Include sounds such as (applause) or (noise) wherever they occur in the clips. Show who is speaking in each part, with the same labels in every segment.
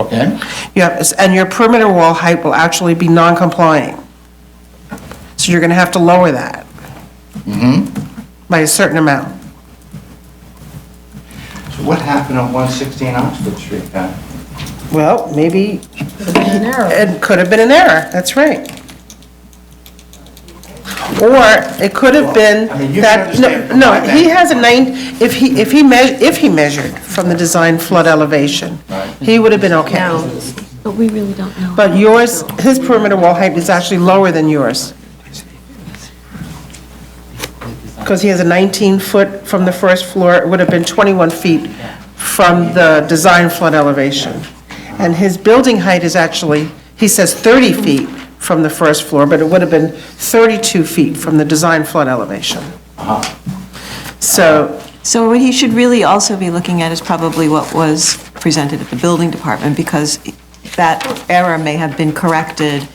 Speaker 1: Okay?
Speaker 2: Yep, it's- and your perimeter wall height will actually be non-compliant. So you're going to have to lower that.
Speaker 1: Mm-hmm.
Speaker 2: By a certain amount.
Speaker 1: So what happened on 116 Oxford Street then?
Speaker 2: Well, maybe
Speaker 3: An arrow.
Speaker 2: it could have been an error, that's right. Or it could have been
Speaker 1: I mean, you can
Speaker 2: that,
Speaker 1: understand
Speaker 2: no,
Speaker 1: from my
Speaker 2: no, he
Speaker 1: vantage
Speaker 2: has a nine, if he, if he measured, if he measured from the design flood elevation,
Speaker 1: Right.
Speaker 2: he would have been okay.
Speaker 3: No, but we really don't know.
Speaker 2: But yours, his perimeter wall height is actually lower than yours. Because he has a 19-foot from the first floor, it would have been 21 feet from the design flood elevation. And his building height is actually, he says 30 feet from the first floor, but it would have been 32 feet from the design flood elevation. So,
Speaker 4: So what he should really also be looking at is probably what was presented at the building department, because that error may have been corrected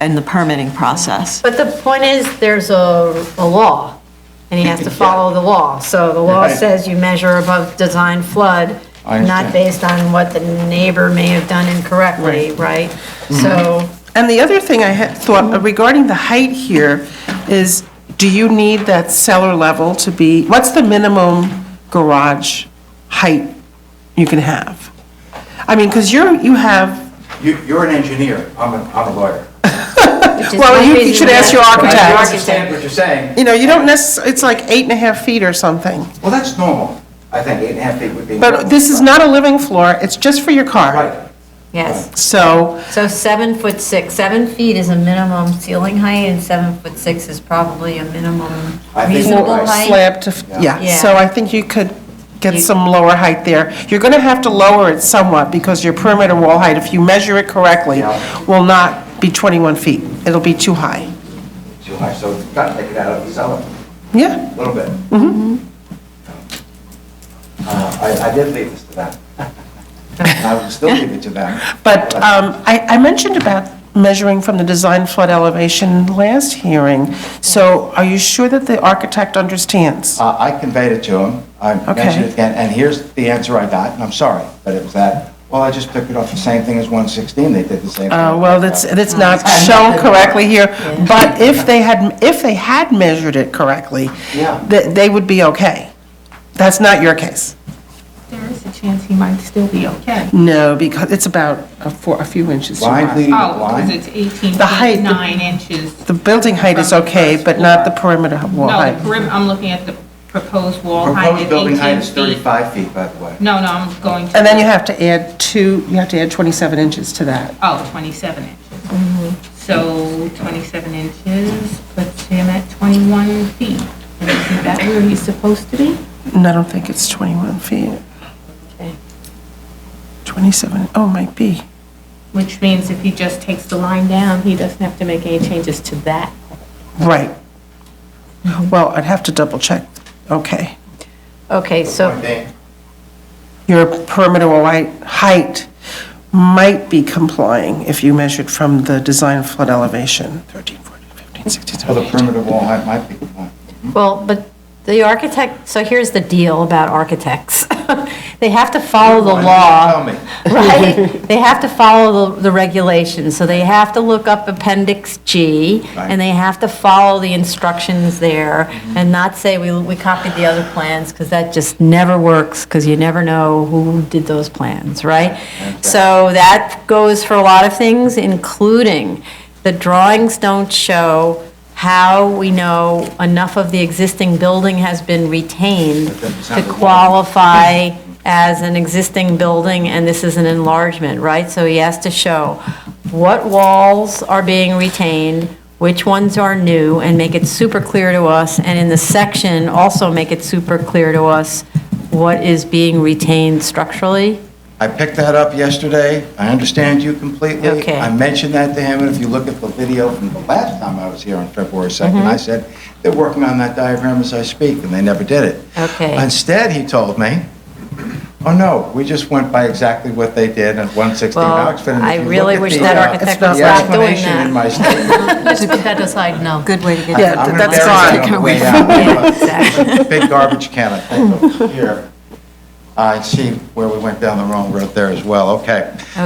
Speaker 4: in the permitting process.
Speaker 3: But the point is, there's a, a law, and he has
Speaker 1: (laughs)
Speaker 3: to follow the law. So the law
Speaker 1: Right.
Speaker 3: says you measure above design flood,
Speaker 1: I
Speaker 3: not
Speaker 1: understand.
Speaker 3: based on what the neighbor may have done incorrectly, right?
Speaker 1: Mm-hmm.
Speaker 3: So,
Speaker 2: And the other thing I had thought regarding the height here is, do you need that cellar level to be, what's the minimum garage height you can have? I mean, because you're, you have,
Speaker 1: You- You're an engineer, I'm a, I'm a lawyer.
Speaker 3: which is
Speaker 2: Well,
Speaker 3: one
Speaker 2: you- you
Speaker 3: reason
Speaker 2: should
Speaker 3: we
Speaker 2: ask
Speaker 3: have-
Speaker 2: your
Speaker 1: But
Speaker 2: architect.
Speaker 1: I do
Speaker 3: Architect.
Speaker 1: understand what you're saying.
Speaker 2: you know, you don't necess, it's like eight and a half feet or something.
Speaker 1: Well, that's normal. I think eight and a half feet would be.
Speaker 2: But this is not a living floor, it's just for your car.
Speaker 1: Right.
Speaker 3: Yes,
Speaker 2: So,
Speaker 3: so seven foot six, seven feet is a minimum ceiling height, and seven foot six is probably a minimum
Speaker 1: I think you're
Speaker 3: reasonable
Speaker 1: right.
Speaker 3: height.
Speaker 2: slab to, f- yeah,
Speaker 3: Yeah.
Speaker 2: so I think you could get
Speaker 3: You-
Speaker 2: some lower height there. You're going to have to lower it somewhat because your perimeter wall height, if you measure it correctly,
Speaker 1: Yeah.
Speaker 2: will not be 21 feet. It'll be too high.
Speaker 1: Too high, so you've got to take it out of the cellar,
Speaker 2: Yeah,
Speaker 1: a little bit.
Speaker 2: Mm-hmm.
Speaker 1: Uh, I, I did leave this to them. (laughs) I would still leave it to them.
Speaker 2: but um, I I mentioned about measuring from the design flood elevation last hearing, so are you sure that the architect understands?
Speaker 1: Uh, I conveyed it to him. I mentioned it again, and here's the answer I got, and I'm sorry, but it was that, well, I just picked it off the same thing as 116, they did the same thing.
Speaker 2: Uh, Well, that's, that's not shown correctly here, but if they had, if they had measured it correctly,
Speaker 1: Yeah.
Speaker 2: th- they would be okay. That's not your case.
Speaker 5: There is a chance he might still be okay.
Speaker 2: No, because it's about a four, a few inches too
Speaker 1: Blind
Speaker 2: high.
Speaker 1: leading the
Speaker 5: Oh, because
Speaker 1: blind.
Speaker 5: it's 18
Speaker 2: The height-
Speaker 5: feet, 9 inches.
Speaker 2: The building height is okay, but not the perimeter wall
Speaker 5: No, the
Speaker 2: height.
Speaker 5: perim, I'm looking at the proposed wall height
Speaker 1: Proposed
Speaker 5: at
Speaker 1: building height
Speaker 5: 18
Speaker 1: is
Speaker 5: feet.
Speaker 1: 35 feet, by the way.
Speaker 5: No, no, I'm going to.
Speaker 2: And then you have to add two, you have to add 27 inches to that.
Speaker 5: Oh, 27 inches. So 27 inches puts him at 21 feet. And Is that where he's supposed to be?
Speaker 2: And I don't think it's 21 feet. 27, oh, might be.
Speaker 5: Which means if he just takes the line down, he doesn't have to make any changes to that.
Speaker 2: Right. Well, I'd have to double check. Okay.
Speaker 3: Okay, so
Speaker 1: Point being,
Speaker 2: Your perimeter wall height- height might be complying if you measured from the design flood elevation. 13, 14, 15, 16,
Speaker 1: Well, the
Speaker 2: 17,
Speaker 1: perimeter wall height might be,
Speaker 3: Well, but the architect, so here's the deal about architects. (laughs) They have to follow the
Speaker 1: Why
Speaker 3: law,
Speaker 1: didn't you
Speaker 3: (laughs) right? They have to follow the- the regulations, so they have to look up Appendix G,
Speaker 1: Right.
Speaker 3: and they have to follow the instructions there, and not say, we we copied the other plans, because that just never works, because you never know who did those plans, right? So that goes for a lot of things, including the drawings don't show how we know enough of the existing building has been retained to qualify as an existing building, and this is an enlargement, right? So he has to show what walls are being retained, which ones are new, and make it super clear to us, and in the section, also make it super clear to us what is being retained structurally.
Speaker 1: I picked that up yesterday. I understand you completely.
Speaker 3: Okay.
Speaker 1: I mentioned that to him, and if you look at the video from the last time I was here on February 2nd,
Speaker 3: Mm-hmm.
Speaker 1: I said, they're working on that diagram as I speak, and they never did it.
Speaker 3: Okay.
Speaker 1: Instead, he told me, oh, no, we just went by exactly what they did at 116
Speaker 3: Well,
Speaker 1: Oxford. and if
Speaker 3: I
Speaker 1: you look
Speaker 3: really
Speaker 1: at
Speaker 3: wish
Speaker 1: the,
Speaker 3: that
Speaker 1: uh,
Speaker 3: architect
Speaker 2: was
Speaker 1: the
Speaker 2: not
Speaker 3: doing
Speaker 1: explanation
Speaker 3: that.
Speaker 1: in my statement,
Speaker 3: Just put that aside, no.
Speaker 4: Good way to get.
Speaker 2: Yeah,
Speaker 1: I'm
Speaker 2: that's
Speaker 1: embarrassed
Speaker 2: fine.
Speaker 1: on the way
Speaker 3: (laughs) Yeah,
Speaker 1: out.
Speaker 3: exactly.
Speaker 1: Big garbage can, I think, over here. I see where we went down the wrong road there as well, okay.